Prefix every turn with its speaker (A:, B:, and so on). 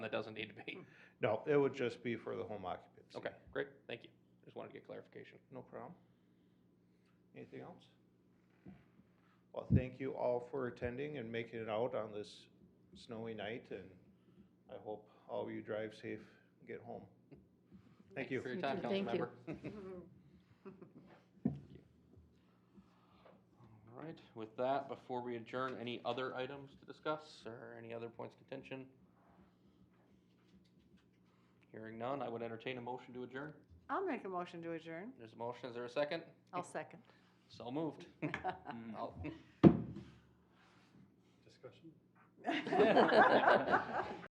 A: that doesn't need to be.
B: No, it would just be for the home occupancy.
A: Okay, great, thank you. Just wanted to get clarification.
B: No problem. Anything else? Well, thank you all for attending and making it out on this snowy night, and I hope all of you drive safe and get home. Thank you.
A: For your time,
C: Thank you.
A: councilmember. All right, with that, before we adjourn, any other items to discuss or any other points of contention? Hearing none, I would entertain a motion to adjourn.
C: I'll make a motion to adjourn.
A: There's a motion, is there a second?
C: I'll second.
A: So moved. All-
D: Discussion?